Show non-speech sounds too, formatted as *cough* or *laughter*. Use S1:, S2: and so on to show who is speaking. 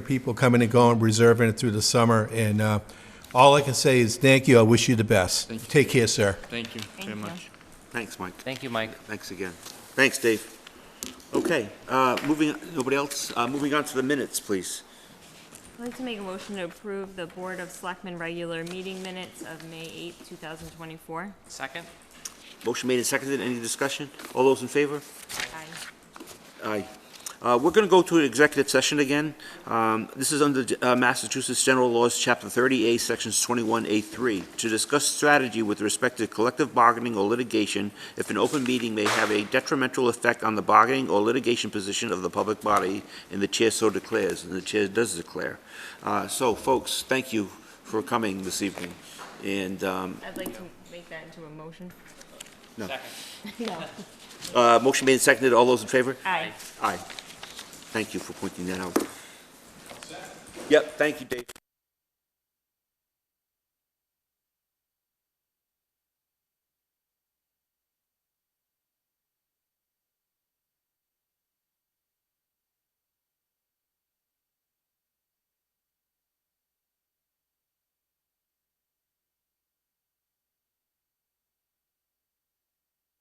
S1: People coming and going, reserving it through the summer, and uh, all I can say is thank you, I wish you the best.
S2: Thank you.
S1: Take care, sir.
S2: Thank you very
S3: Thank you.
S2: much.
S4: Thanks, Mike.
S5: Thank you, Mike.
S4: Thanks again. Thanks, Dave. Okay, uh, moving, nobody else? Uh, Moving on to the minutes, please.
S3: I'd like to make a motion to approve the Board of Selectmen regular meeting minutes of May 8, 2024.
S5: Second?
S4: Motion made and seconded. Any discussion? All those in favor?
S3: Aye.
S4: Aye. Uh, We're going to go to an executive session again. Um, This is under uh, Massachusetts General Laws, Chapter 30A, Sections 21A3, to discuss strategy with respect to collective bargaining or litigation if an open meeting may have a detrimental effect on the bargaining or litigation position of the public body, and the chair so declares, and the chair does declare. Uh, So, folks, thank you for coming this evening, and um,
S3: I'd like to make that into a motion.
S5: Second.
S3: *laughs* No.
S4: uh, motion made and seconded. All those in favor?
S3: Aye.
S4: Aye. Thank you for pointing that out. Yep, thank you, Dave.